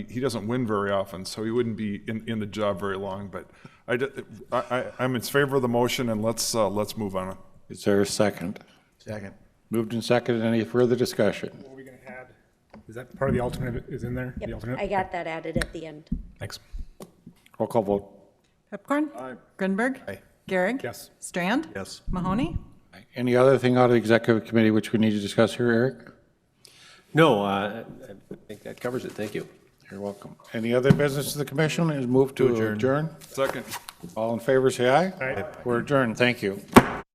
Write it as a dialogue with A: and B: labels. A: he doesn't win very often, so he wouldn't be in, in the job very long, but I, d- I- I, am in favor of the motion, and let's, uh, let's move on.
B: Is there a second?
C: Second.
B: Moved and seconded. Any further discussion?
D: What are we gonna add? Is that part of the alternate is in there? The
E: Yep,
D: alternate?
E: I got that added at the end.
D: Thanks.
B: Roll call vote.
F: Pepcorn? Aye. Grinberg? Aye. Garrick?
D: Yes.
F: Strand?
C: Yes.
F: Mahoney?
B: Any other thing out of the executive committee which we need to discuss here, Eric?
G: No, uh, I think that covers it. Thank you.
B: You're welcome. Any other business of the commission is moved to adjourn?
A: Second.
B: All in favor, say aye.
D: Aye.
B: We're adjourned. Thank you.